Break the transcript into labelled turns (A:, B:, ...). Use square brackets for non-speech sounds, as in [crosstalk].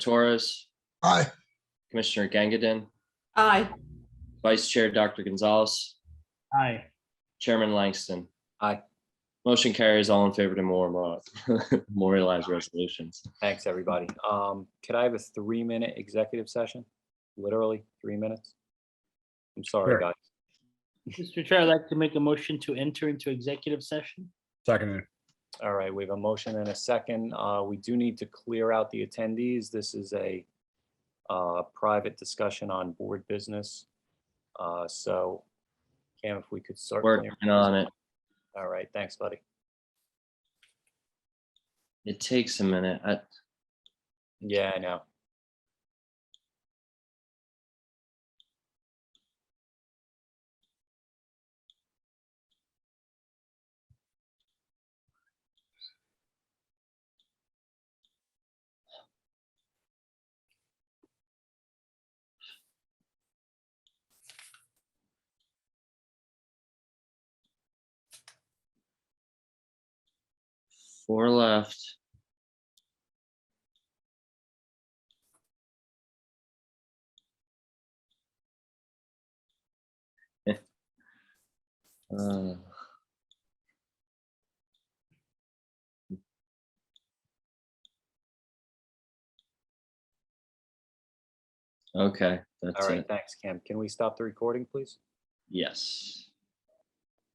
A: Torres,
B: Aye.
A: Commissioner Gangadin,
C: Aye.
A: Vice Chair Dr. Gonzalez,
D: Aye.
A: Chairman Langston. Aye. Motion carries all in favor to more uh, [laughs] memorialize resolutions.
E: Thanks, everybody. Um, could I have a three-minute executive session? Literally, three minutes? I'm
F: Sure.
E: sorry, guys.
D: Mr. Chair, I'd like to make a motion to enter into executive session.
F: Seconded.
E: All right, we have a motion and a second. Uh, we do need to clear out the attendees. This is a uh, private discussion on board business. Uh, so Cam, if we could start.
A: Working on it.
E: All right, thanks, buddy.
A: It takes a minute. I-
E: Yeah, I know.
A: Four left. [laughs] Uh, Okay, that's
E: All right,
A: it.
E: thanks, Cam. Can we stop the recording, please?
A: Yes.